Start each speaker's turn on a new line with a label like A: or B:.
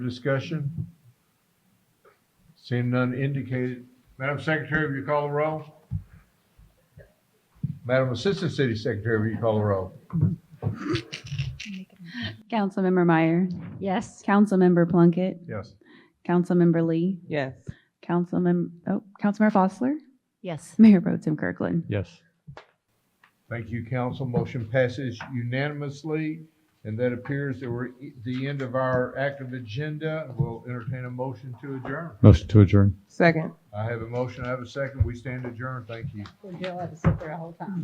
A: Discussion? Seeing none indicated. Madam Secretary, will you call the roll? Madam Assistant City Secretary, will you call the roll?
B: Councilmember Meyer,
C: Yes.
B: Councilmember Plunkett,
A: Yes.
B: Councilmember Lee,
D: Yes.
B: Councilmember, oh, Councilmember Fosler,
C: Yes.
B: Mayor Pro Tim Kirkland.
E: Yes.
A: Thank you, council. Motion passes unanimously. And that appears that we're at the end of our active agenda. We'll entertain a motion to adjourn.
E: Motion to adjourn.
D: Second.
A: I have a motion, I have a second. We stand adjourned. Thank you.
C: You'll have to sit there a whole time.